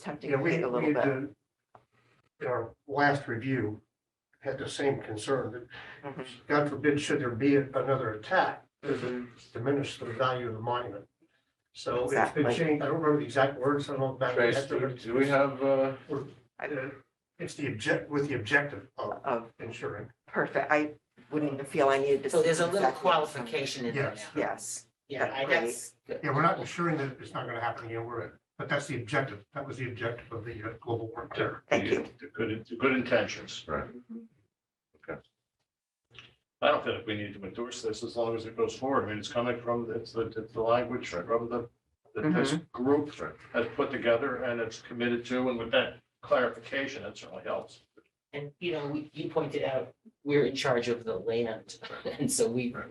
tempting Yeah, to we, take a we little had, bit. to- our last review had the same concern that, Mhm. God forbid, should there be another attack, does Mm-hmm. it diminish the value of the monument? So it's been Exactly. changed, I don't remember the exact words, I don't know. back to Trace, that, but do do we have, uh, uh, It's the object, with the objective of Of, ensuring, perfect, I wouldn't even feel I needed to. So there's see a little exactly what's on there. qualification in there yes. now. Yes, Yeah, I Right. guess. Yeah, we're not ensuring that it's not gonna happen again, we're, but that's the objective, that was the objective of the uh, global war terror. thank you. The good, the good intentions. Right. Okay. I don't think we need to endorse this as long as it goes forward. I mean, it's coming from, it's the, it's the language from the, that this Mm-hmm. group Right. has put together and it's committed to, and with that clarification, that certainly helps. And, you know, we- you pointed out, we're in charge of the land, and so we. Right.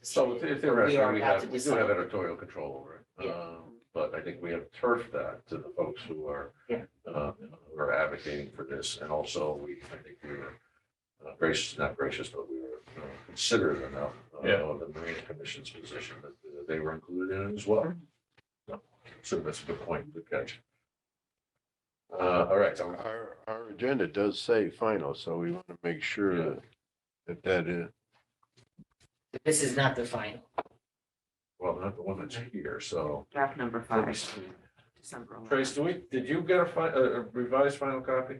so decided- the- we theoretically, are we about have, to we do have decide. editorial control over it. Yeah. Um, But I think we have turfed that to the folks who are, Yeah. uh, who are advocating for this. And also, we, I think we were uh, gracious, not gracious, but we were uh, considerate enough uh, Yeah. of the Marine Commission's position that uh, they were included in it as well. Mm-hmm. So that's a good point, good catch. Uh, All right, so Our, our agenda does say final, so we want to make sure Yeah. that, that that uh, is, This is not the final. Well, not the one that's here, so. Draft number five, December. 11th. Trace, do we, did you get a fi, a a revised final copy?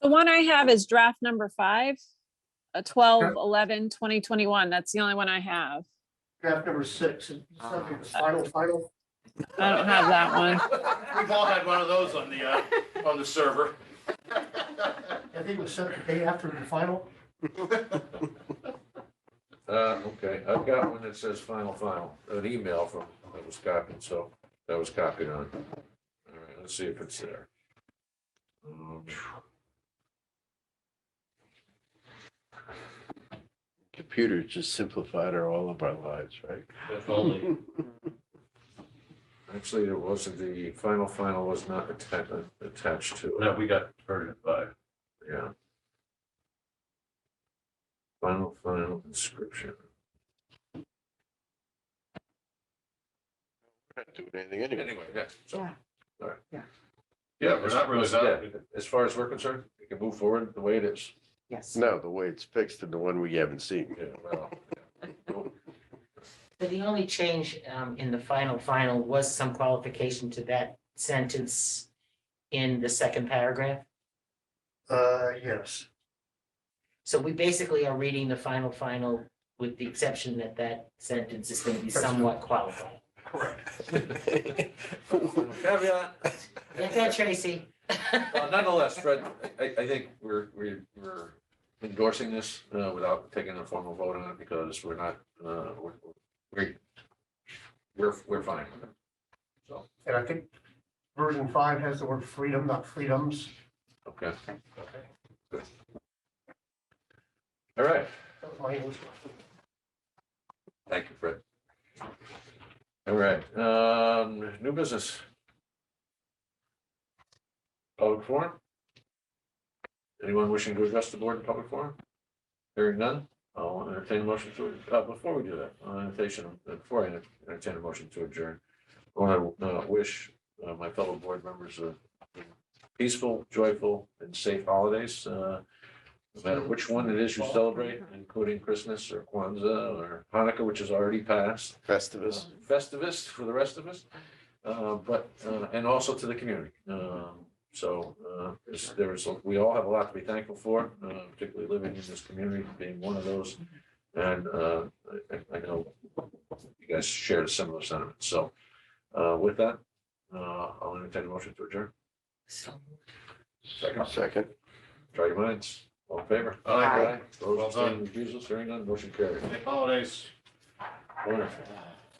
The one I have is draft number five, uh, a 12, Okay. 11, 2021. That's the only one I have. Draft number six, is something that's final, final, I don't have that one. We've all had one of those on the, uh, on the server. I think it was set the day after the final. Uh, okay, I've got one that says final, final, an email from, that was copied, so, that was copied on. All right, let's see if it's there. Um, computers just simplified our, all of our lives, right? If only. Actually, it wasn't, the final, final was not attached, attached to it, No, we got hurt at five. yeah. Final, final inscription. We're not doing anything anyway. Anyway, yeah, so. Yeah. All right. Yeah. Yeah, We're as- not really as- bound. yeah, as far as we're concerned, we can move forward the way it is. Yes, No, the way it's fixed and the one we haven't seen. Yeah, well, So the only change um, in the final, final was some qualification to that sentence in the second paragraph. Uh, yes, So we basically are reading the final, final with the exception that that sentence is going to be somewhat qualified. correct. Caveat. Get that, Tracy? Well, Nonetheless, Fred, I, I think we're, we're, we're endorsing this, uh, without taking a formal vote on it because we're not, uh, we're, we're- we're, we're fine with it. And I think version five has the word freedom, not freedoms. Okay. Good. All right. That was my English. Thank you, Fred. All right, um, new business. Public forum? Anyone wishing to address the board in public forum? Hearing none, I'll entertain a motion to, uh, before we do that, I'll entertain, uh, before I entertain a motion to adjourn. I want to, uh, wish, uh, my fellow board members a peaceful, joyful, and safe holidays, uh, no matter which one it is you celebrate, including Christmas or Kwanzaa or Hanukkah, which is already passed. Festivus. Festivus for the rest of us, uh, but, uh, and also to the community. Um, So uh, there's- there's, we all have a lot to be thankful for, uh, particularly living in this community, being one of those. And uh, I- I know you guys share a similar sentiment. So uh, with that, uh, I'll entertain a motion to adjourn. So Second. Second. Try your minds. All in favor? Aye. Those Well abstaining, done. refusals, hearing none, motion carried. Happy holidays. Wonderful.